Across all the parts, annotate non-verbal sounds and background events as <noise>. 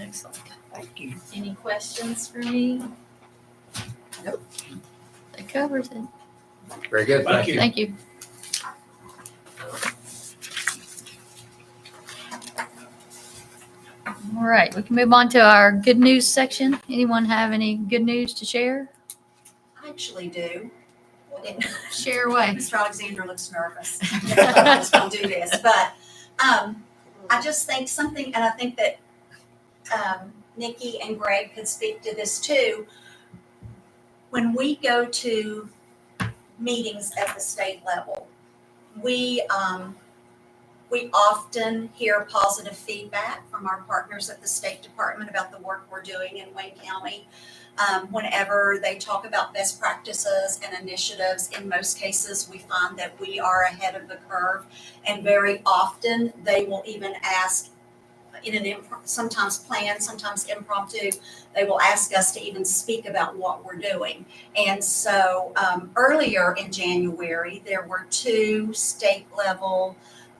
Excellent. Thank you. Any questions for me? That covers it. Very good. Thank you. Thank you. All right, we can move on to our good news section. Anyone have any good news to share? I actually do. Share away. Mr. Alexander looks nervous. We'll do this, but um, I just think something, and I think that um, Nikki and Greg could speak to this too. When we go to meetings at the state level, we um, we often hear positive feedback from our partners at the State Department about the work we're doing in Wayne County um, whenever they talk about best practices and initiatives, in most cases, we find that we are ahead of the curve. And very often, they will even ask in an impro- sometimes planned, sometimes impromptu, they will ask us to even speak about what we're doing. And so um, earlier in January, there were two state level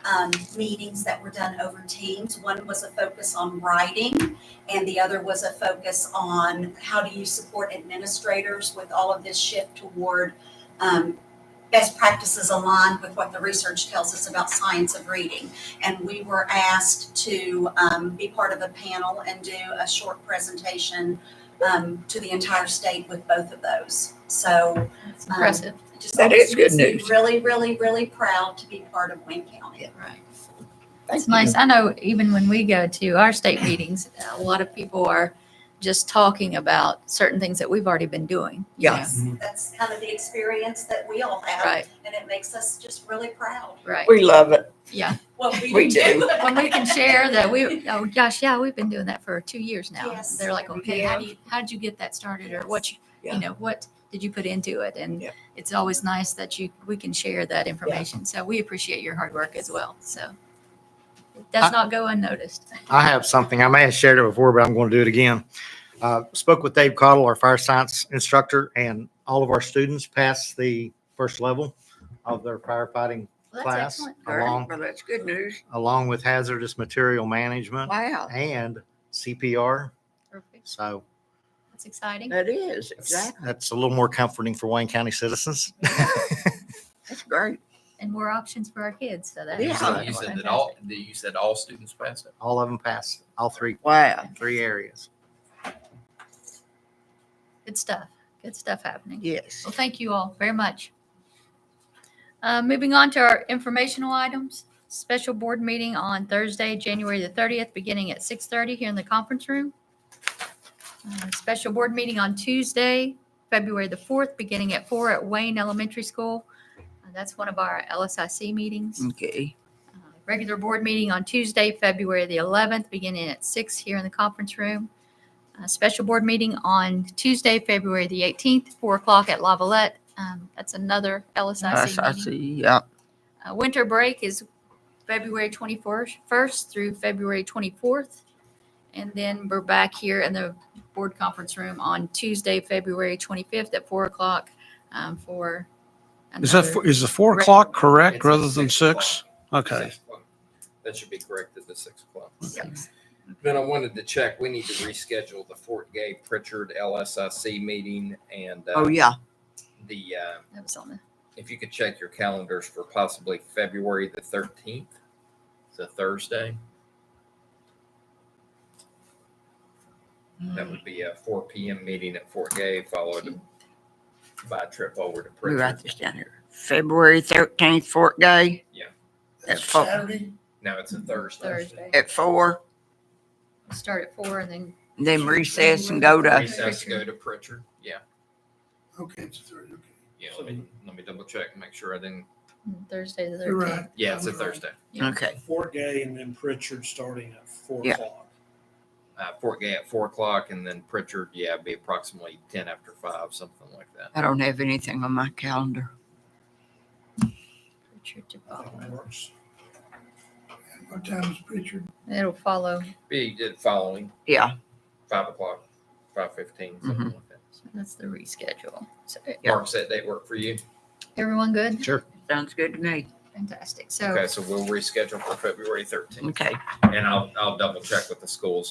um, meetings that were done over Teams. One was a focus on writing and the other was a focus on how do you support administrators with all of this shift toward um, best practices aligned with what the research tells us about science of reading. And we were asked to um, be part of a panel and do a short presentation um, to the entire state with both of those. So It's impressive. just That is good obviously news. Really, really, really proud to be part of Wayne County. Right. Thank It's nice. I know even when we go to our state meetings, a lot of people are just talking about certain things that we've already been doing. you know. Yes. That's kind of the experience that we all have, Right, and it makes us just really proud. right. We love it. Yeah. what we, We do. When we can <laughs> share that we, oh gosh, yeah, we've been doing that for two years now. Yes. They're like, okay, how do you, how did you get that started or what, you Yeah. you know, what did you put into it? And Yeah. it's always nice that you, we can share that information. So we appreciate your hard work as well. So it does I- not go unnoticed. <laughs> I have something. I may have shared it before, but I'm going to do it again. Uh, spoke with Dave Cottle, our fire science instructor, and all of our students passed the first level of their firefighting Well, that's class, excellent. All right. along Well, that's good news. along with hazardous material management Wow. and CPR. Perfect. So That's exciting. That is that's, exactly. that's a little more comforting for Wayne County citizens. <laughs> That's great. And more options for our kids. So that Yeah. is So you said that all, that you said all students passed it? all of them passed all three Wow. three areas. Good stuff. Good stuff happening. Yes. Well, thank you all very much. Uh, Moving on to our informational items, special board meeting on Thursday, January the 30th, beginning at 6:30 here in the conference room. Uh, Special board meeting on Tuesday, February the 4th, beginning at 4 at Wayne Elementary School. Uh, That's one of our LSIC meetings. Okay. Uh, Regular board meeting on Tuesday, February the 11th, beginning at 6 here in the conference room. A Special board meeting on Tuesday, February the 18th, 4 o'clock at Lavalette. Um, That's another Yes, I LSIC meeting. see. Yeah. Uh, Winter break is February 21st first through February 24th. And then we're back here in the board conference room on Tuesday, February 25th at 4 o'clock um, for. Is that, another- four- is the four Right. o'clock correct It's rather than o'clock. six? Okay. Six o'clock. That should be corrected to six o'clock. Six. Then I wanted to check, we need to reschedule the Fort Gay Pritchard LSIC meeting and uh, Oh, yeah. the, uh, That was on the, if you could check your calendars for possibly February the thirteenth, it's a Thursday. That would be a four P M meeting at Fort Gay, followed by a trip over to Let me write Pritchard. this down here. February thirteenth, Fort Day. Yeah. At four, No, it's a Thursday. Thursday. at four, Start at 4 and then then recess and go to, Recess, Pritchard. go to Pritchard, yeah. Okay, it's a third, okay. Yeah, let me, let me double check, make sure I didn't, Thursday the You're 13th. right. yeah, it's a I'm wrong. Thursday. okay. Fort Gay and then Pritchard starting at four Yeah. o'clock. Uh, Fort Gay at four o'clock and then Pritchard, yeah, it'd be approximately ten after five, something like that. I don't have anything on my calendar. Richard to That follow. works. And What time is Pritchard? It'll follow. Be the following, Yeah, five o'clock, five fifteen, something Mhm. like that. So That's the reschedule. So Yeah. Mark said they work for you. everyone good? Sure. sounds good to me. Fantastic. So Okay, so we'll reschedule for February thirteenth Okay. and I'll, I'll double check with the schools